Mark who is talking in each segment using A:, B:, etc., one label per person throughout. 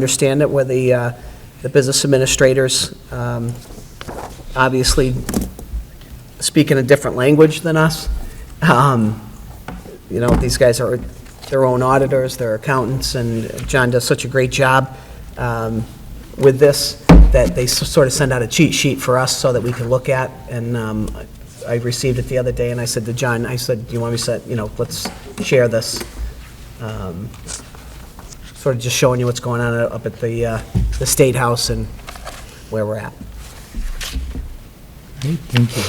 A: understand it, where the, uh, the business administrators um, obviously speak in a different language than us. Um, You know, these guys are their own auditors, their accountants, and John does such a great job um, with this that they s- sort of send out a cheat sheet for us so that we can look at. And um, I received it the other day, and I said to John, I said, do you want me to set, you know, let's share this um, sort of just showing you what's going on up at the, uh, the State House and where we're at.
B: Great, Thank you.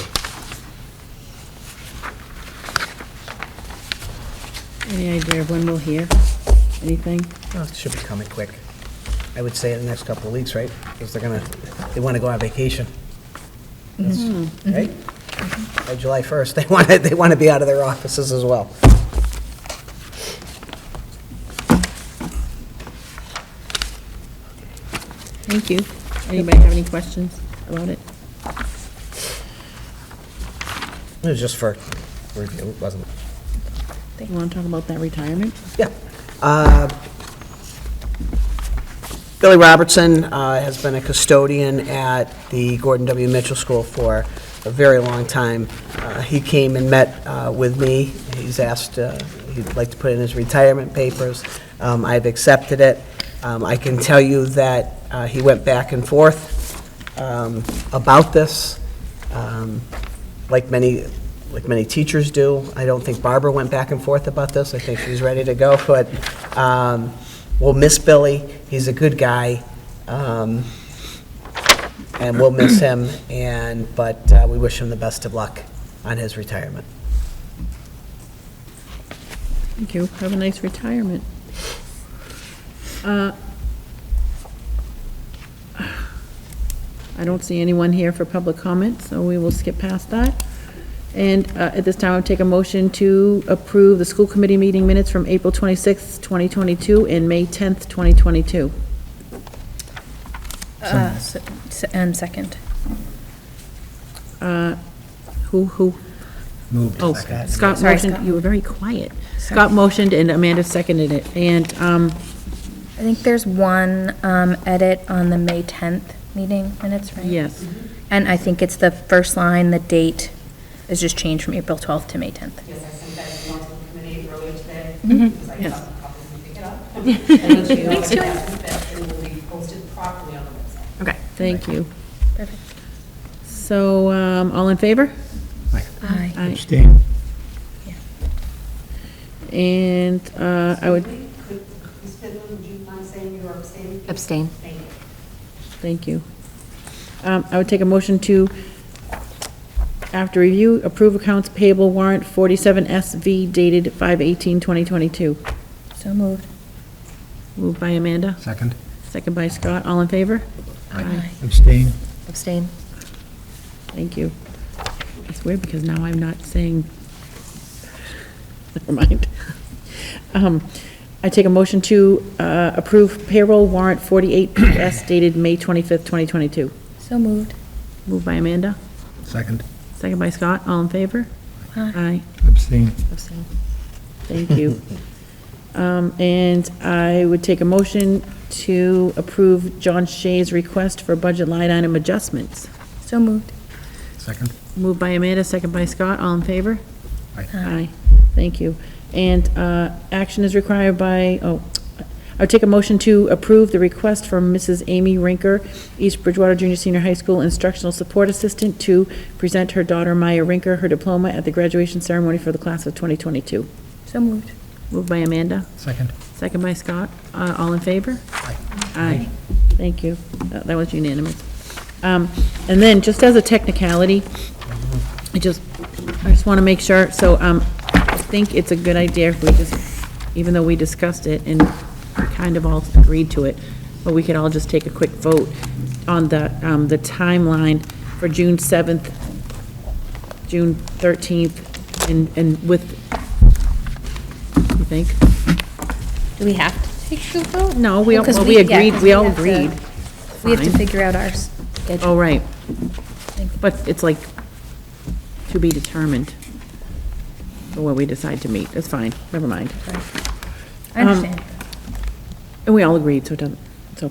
C: Any idea of when we'll hear anything?
A: Oh, it Should be coming quick. I would say in the next couple of weeks, right? Because they're gonna, they want to go on vacation. That's- Right? By July 1st, they want to, they want to be out of their offices as well.
C: Thank you. Anybody have any questions about it?
A: It was just for review, wasn't it?
C: You want to talk about that retirement?
A: Yeah. Uh, Billy Robertson uh, has been a custodian at the Gordon W. Mitchell School for a very long time. Uh, He came and met uh, with me. He's asked, uh, he'd like to put in his retirement papers. Um, I've accepted it. Um, I can tell you that uh, he went back and forth um, about this, um, like many, like many teachers do. I don't think Barbara went back and forth about this. I think she's ready to go, but um, we'll miss Billy. He's a good guy, um, and we'll miss him, and, but uh, we wish him the best of luck on his retirement.
C: Thank you. Have a nice retirement. Uh, I don't see anyone here for public comment, so we will skip past that. And uh, at this time, I'll take a motion to approve the school committee meeting minutes from April 26th, 2022, and May 10th, 2022.
D: Uh, s- s- And second.
C: Who, who,
B: Moved.
C: Oh, Scott
D: Sorry,
C: motioned,
D: Scott.
C: you were very quiet. Scott motioned and Amanda seconded it, and, um,
D: I think there's one um, edit on the May 10th meeting minutes, right?
C: yes,
D: And I think it's the first line, the date is just changed from April 12th to May 10th.
E: Yes, I sent that email to the committee earlier today. Because I
C: Yes.
E: thought probably pick it up. And let you know if that it will be posted properly on the website.
D: Okay.
C: thank you.
D: Perfect.
C: So, um, all in favor?
D: Aye.
C: Aye.
B: Abstain.
C: And, uh, I would,
E: Could, Ms. Fidlin, would you mind saying you're abstaining?
F: Abstain.
E: Thank you.
C: thank you. Um, I would take a motion to, after review, approve accounts payable warrant 47SV dated 5/18/2022.
D: So moved.
C: Moved by Amanda,
B: Second.
C: second by Scott, all in favor? Aye.
B: Abstain.
F: Abstain.
C: Thank you. It's weird because now I'm not saying, never mind. Um, I take a motion to uh, approve payroll warrant 48PS dated May 25th, 2022.
D: So moved.
C: Moved by Amanda,
B: Second.
C: second by Scott, all in favor?
D: Aye.
C: Aye,
B: Abstain.
F: Abstain.
C: thank you. Um, And I would take a motion to approve John Shea's request for budget line item adjustments.
D: So moved.
B: Second.
C: Moved by Amanda, second by Scott, all in favor?
B: Aye.
C: Aye, thank you. And uh, action is required by, oh, I would take a motion to approve the request from Mrs. Amy Rinker, East Bridgewater Junior Senior High School Instructional Support Assistant, to present her daughter Maya Rinker her diploma at the graduation ceremony for the class of 2022.
D: So moved.
C: Moved by Amanda,
B: Second.
C: second by Scott. Uh, All in favor? Aye. Thank you. That that was unanimous. Um, And then, just as a technicality, I just, I just want to make sure, so um, I think it's a good idea if we just, even though we discussed it and kind of all agreed to it, but we could all just take a quick vote on the, um, the timeline for June 7th, June 13th, and, and with, you think?
D: Do we have to take the vote?
C: No, we all-
D: Because
C: well, we
D: yeah,
C: agreed-
D: 'cause
C: we all
D: have to-
C: agreed.
D: We have to
C: Fine.
D: figure out ours.
C: Oh, right. But it's like, to be determined, or what we decide to meet, that's fine, never mind.
D: I understand.
C: And we all agreed, so it doesn't,